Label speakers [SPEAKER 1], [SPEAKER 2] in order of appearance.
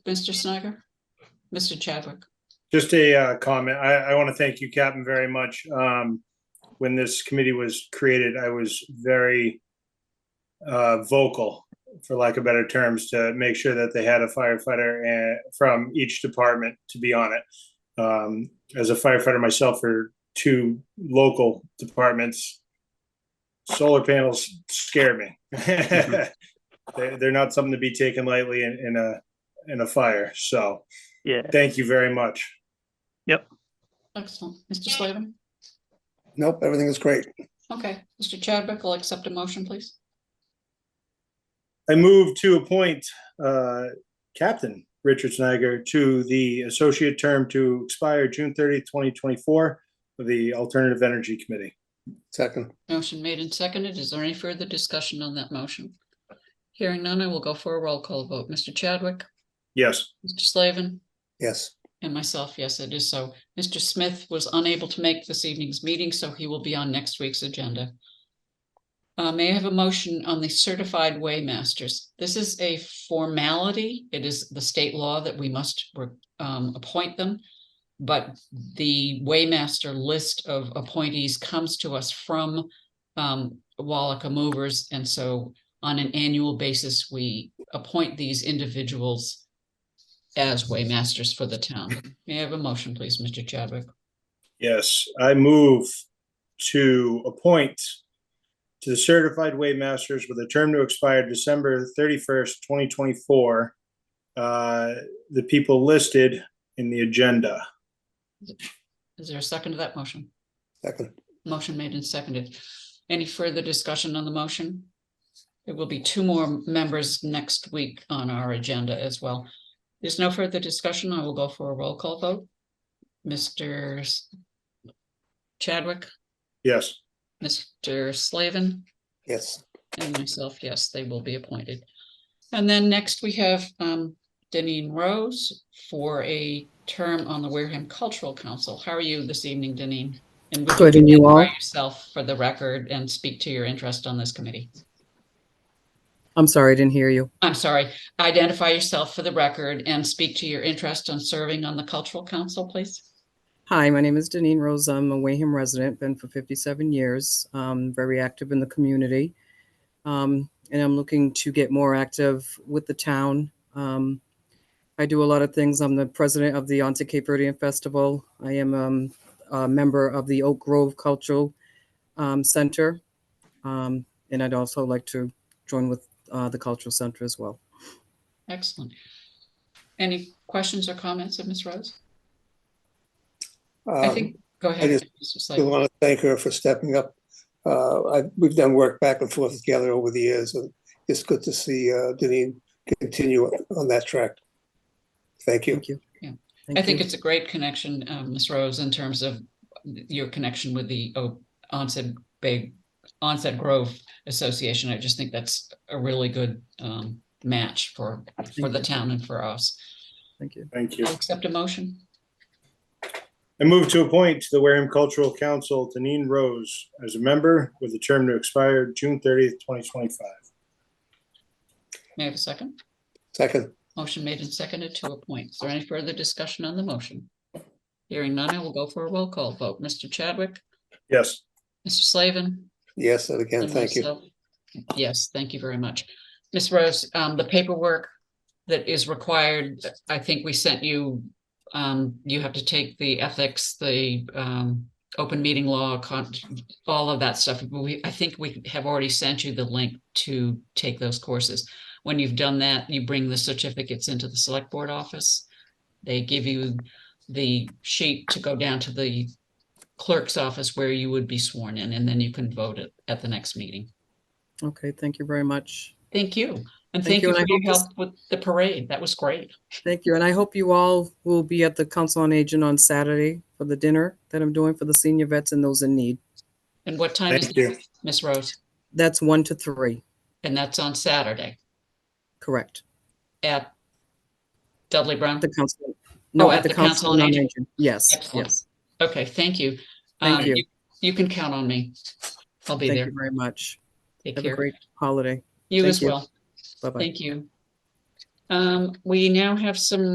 [SPEAKER 1] Mr. Snyder? Mr. Chadwick?
[SPEAKER 2] Just a uh, comment. I, I want to thank you, Captain, very much. Um, When this committee was created, I was very uh, vocal, for lack of better terms, to make sure that they had a firefighter uh, from each department to be on it. Um, As a firefighter myself for two local departments, solar panels scare me. They're, they're not something to be taken lightly in, in a, in a fire. So
[SPEAKER 3] Yeah,
[SPEAKER 2] thank you very much.
[SPEAKER 1] Excellent. Mr. Slavin?
[SPEAKER 4] Nope, everything is great.
[SPEAKER 1] Okay, Mr. Chadwick will accept a motion, please.
[SPEAKER 2] I move to appoint uh, Captain Richard Snyder to the associate term to expire June 30th, 2024 for the Alternative Energy Committee.
[SPEAKER 4] Second,
[SPEAKER 1] Motion made and seconded. Is there any further discussion on that motion? Hearing none, I will go for a roll call vote. Mr. Chadwick?
[SPEAKER 2] Yes,
[SPEAKER 1] Mr. Slavin?
[SPEAKER 4] yes,
[SPEAKER 1] And myself, yes, it is so. Mr. Smith was unable to make this evening's meeting, so he will be on next week's agenda. Uh, may I have a motion on the certified waymasters? This is a formality. It is the state law that we must um, appoint them. But the waymaster list of appointees comes to us from um, Wallaca movers. And so on an annual basis, we appoint these individuals as waymasters for the town. May I have a motion, please, Mr. Chadwick?
[SPEAKER 2] yes, I move to appoint to the Certified Waymasters with a term to expire December 31st, 2024, uh, the people listed in the agenda.
[SPEAKER 1] Is there a second to that motion?
[SPEAKER 4] second,
[SPEAKER 1] Motion made and seconded. Any further discussion on the motion? There will be two more members next week on our agenda as well. There's no further discussion. I will go for a roll call vote. Mr. S- Chadwick,
[SPEAKER 2] Yes,
[SPEAKER 1] Mr. Slavin,
[SPEAKER 4] yes,
[SPEAKER 1] and myself, yes, they will be appointed. And then next we have um Deneen Rose for a term on the Wareham Cultural Council. How are you this evening, Deneen? And would
[SPEAKER 5] Good, and you all?
[SPEAKER 1] identify Yourself for the record and speak to your interest on this committee.
[SPEAKER 5] I'm sorry, I didn't hear you.
[SPEAKER 1] I'm sorry, identify yourself for the record and speak to your interest on serving on the Cultural Council, please.
[SPEAKER 5] Hi, my name is Deneen Rose. I'm a Wayham resident, been for 57 years, um, very active in the community. Um, and I'm looking to get more active with the town. Um, I do a lot of things. I'm the president of the Onset Cape Verdean Festival. I am um, a member of the Oak Grove Cultural um, Center. Um, and I'd also like to join with uh, the Cultural Center as well.
[SPEAKER 1] Excellent. Any questions or comments of Ms. Rose? I
[SPEAKER 4] um,
[SPEAKER 1] think, go ahead.
[SPEAKER 4] just-
[SPEAKER 1] Mr.
[SPEAKER 4] we
[SPEAKER 1] Slavin.
[SPEAKER 4] want to thank her for stepping up. Uh, I, we've done work back and forth together over the years, and it's good to see, uh, Deneen continue on that track. Thank you.
[SPEAKER 5] Thank you.
[SPEAKER 1] Yeah.
[SPEAKER 5] Thank
[SPEAKER 1] I think
[SPEAKER 5] you.
[SPEAKER 1] it's a great connection, um, Ms. Rose, in terms of your connection with the O- Onset Bay, Onset Grove Association. I just think that's a really good um, match for, for the town and for us.
[SPEAKER 5] Thank you.
[SPEAKER 2] thank you.
[SPEAKER 1] I'll accept a motion.
[SPEAKER 2] I move to appoint to the Wareham Cultural Council Deneen Rose as a member with a term to expire June thirtieth, twenty twenty-five.
[SPEAKER 1] May I have a second?
[SPEAKER 4] Second,
[SPEAKER 1] Motion made and seconded to appoint. Is there any further discussion on the motion? Hearing none, I will go for a roll call vote. Mr. Chadwick,
[SPEAKER 2] Yes,
[SPEAKER 1] Mr. Slavin.
[SPEAKER 4] yes, and again,
[SPEAKER 1] And
[SPEAKER 4] thank you.
[SPEAKER 1] myself. uh, Yes, thank you very much. Ms. Rose, um, the paperwork that is required, I think we sent you, um, you have to take the ethics, the, um, open meeting law, con, all of that stuff. We, I think we have already sent you the link to take those courses. When you've done that, you bring the certificates into the select board office. They give you the sheet to go down to the clerk's office where you would be sworn in, and then you can vote at, at the next meeting.
[SPEAKER 5] Okay, thank you very much.
[SPEAKER 1] Thank you. And thank
[SPEAKER 5] Thank you,
[SPEAKER 1] you
[SPEAKER 5] and I
[SPEAKER 1] for your
[SPEAKER 5] hope this-
[SPEAKER 1] help with the parade. That was great.
[SPEAKER 5] Thank you, and I hope you all will be at the Council on Aging on Saturday for the dinner that I'm doing for the senior vets and those in need.
[SPEAKER 1] And what time is
[SPEAKER 2] thank
[SPEAKER 1] it,
[SPEAKER 2] you.
[SPEAKER 1] Miss Rose?
[SPEAKER 5] That's one to three,
[SPEAKER 1] And that's on Saturday
[SPEAKER 5] correct?
[SPEAKER 1] at Dudley Brown?
[SPEAKER 5] The council, no,
[SPEAKER 1] Oh,
[SPEAKER 5] at the Council on Aging. Yes,
[SPEAKER 1] Excellent.
[SPEAKER 5] yes.
[SPEAKER 1] Okay, thank you.
[SPEAKER 5] Thank
[SPEAKER 1] Um,
[SPEAKER 5] you.
[SPEAKER 1] You can count on me. I'll be
[SPEAKER 5] Thank
[SPEAKER 1] there.
[SPEAKER 5] you very much.
[SPEAKER 1] Take
[SPEAKER 5] Have a
[SPEAKER 1] care.
[SPEAKER 5] great holiday.
[SPEAKER 1] You
[SPEAKER 5] thank
[SPEAKER 1] as
[SPEAKER 5] you.
[SPEAKER 1] well.
[SPEAKER 5] Bye-bye.
[SPEAKER 1] Thank you. Um, we now have some